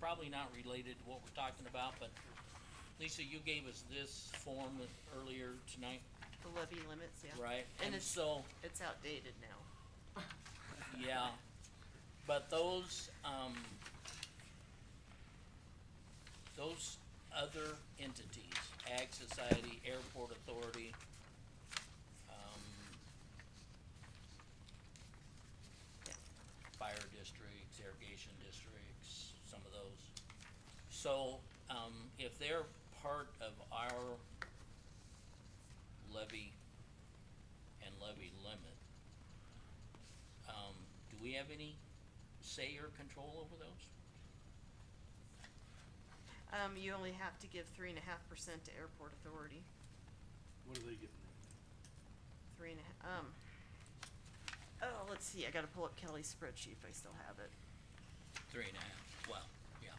probably not related to what we're talking about, but Lisa, you gave us this form earlier tonight, The levy limits, yeah. right? And it's- so, It's outdated now. yeah, but those, um, those other entities, Ag Society, Airport Authority, um, Yeah. fire districts, irrigation districts, some of those. So, um, if they're part of our levy and levy limit, um, do we have any say or control over those? Um, you only have to give three and a half percent to airport authority, What are they getting right now? three and a ha- um. Oh, let's see, I gotta pull up Kelly's spreadsheet if I still have it. Three and a half, well, yeah,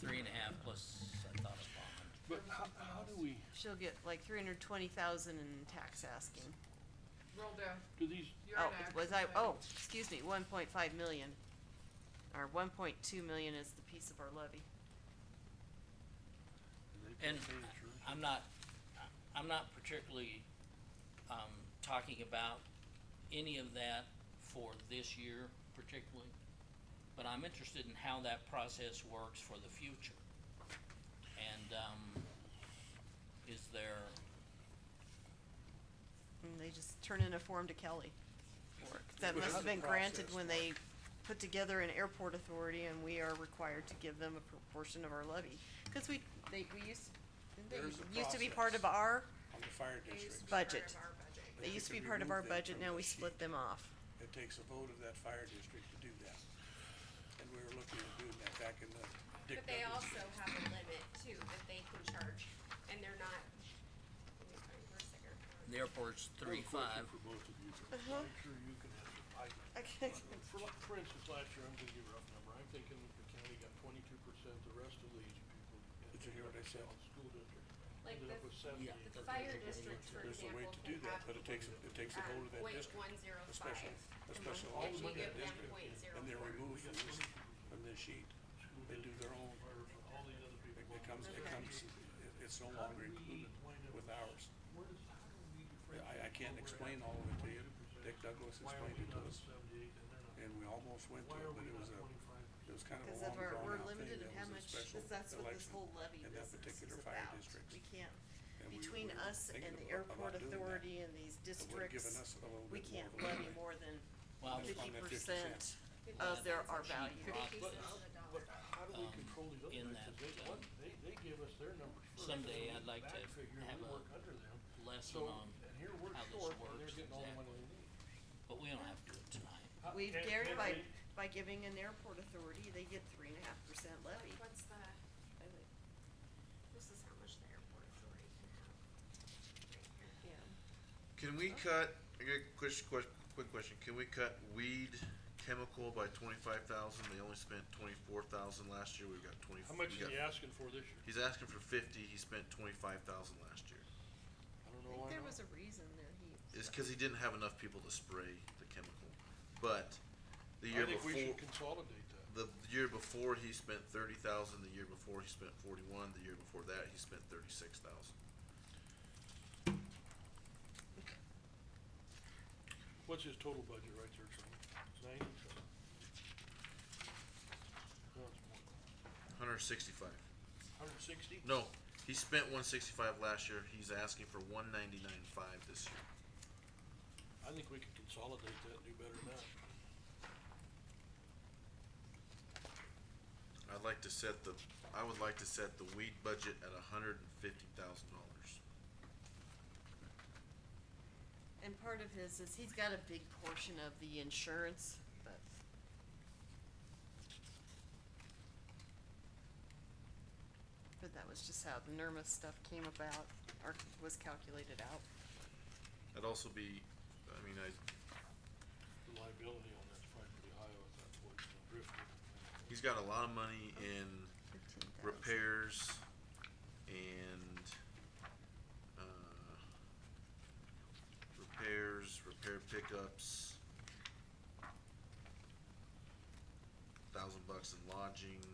three and a half plus, I thought it was a hundred. But how, how do we, She'll get like three hundred twenty thousand in tax asking. Roll down, do these, you're Oh, an action. was I, plan. oh, excuse me, one point five million. Or one point two million is the piece of our levy. do they pay And insurance? I'm not, I'm not particularly, um, talking about any of that for this year particularly, but I'm interested in how that process works for the future. And, um, is there, And they just turn in a form to Kelly. for it. 'Cause That But must how have the been granted process when work? they put together an airport authority and we are required to give them a proportion of our levy. Cause we, they, we used, didn't There's a they used to be part of process. our, on the fire They used to district. be part of Budget. our budget. they If used to we be part of remove our them budget, from now the we sheet. split them off. It takes a vote of that fire district to do that. And we were looking at doing that back in the Dick But they Douglas. also have a limit too, that they can charge, and they're not, let me find where sticker. the airport's three, five, I have a question for both of you. Uh-huh. I'm sure you can have some, I, Okay. for, like- for instance, last year, I'm gonna give you a rough number, I'm thinking that the county got twenty-two percent, the rest of these people. Did you hear what I said? on School district, Like ended up the- with seventy. Yeah. and thirty. The fire district, for There's a way example, to do can that, have, but it takes, a- it takes a um, vote of that point district, one zero a five. special, a and special vote once you of that give them district, point zero and they're four. removed from this, from this sheet. School They do district, their own, fire, for all these other people. it becomes, it comes, it- it's no longer included with ours. Where does, how do we differentiate I, I can't where we're explain at? all of it to you, 22%. Dick Douglas Why are explained we it not to at us, seventy-eight and they're not? and we almost went to Why it, are but we it not was a, twenty-five it percent? was kind of a Cause long of our, drawn we're out thing, limited in how that was a much, special cause that's what this election. whole levy in that business is particular fire about. district. We can't, And we- between we were us thinking and the abo- airport about doing that, authority and these It would've given districts, us a little we bit more can't of a levy leeway. more than well, That's fifty fine, that 50%. percent of their, our Fifty value. cents. Fifty But cents how, on the dollar. but how do we um, control these other in guys? that, 'Cause um, they, what, they, they give us their numbers first. someday and I'd we like back to figure and have we a work under them. lesson So, on, and here we're how this short, and works they're getting all the money exactly. they need. but we don't have to do it tonight. How- We've can- dared can by, they- by giving an airport authority, they get three and a half percent levy. What's the, this is how much the airport authority can have. Right here. Can we cut, I got a quick, quick, quick question, can we cut weed chemical by twenty-five thousand, they only spent twenty-four thousand last year, we've got twenty. How much is we got- he asking for this year? He's asking for fifty, he spent twenty-five thousand last year, I don't know why not. a reason that he. it's cause he didn't have enough people to spray the chemical, but the I year think we before, should consolidate that. the year before, he spent thirty thousand, the year before, he spent forty-one, the year before that, he spent thirty-six thousand. What's his total budget right there, Charlie? It's Ninety something? No, it's more. Hundred sixty-five, Hundred sixty? no, he spent one sixty-five last year, he's asking for one ninety-nine five this year. I think we could consolidate that and do better than that. I'd like to set the, I would like to set the weed budget at a hundred and fifty thousand dollars. And part of his is, he's got a big portion of the insurance, but but that was just how the NERMA stuff came about, or was calculated out. That'd also be, I mean, I, The liability on that's probably pretty high with that poison and drifting. he's got a lot of money in Fifteen thousand. repairs and, uh, repairs, repair pickups, thousand bucks in lodging,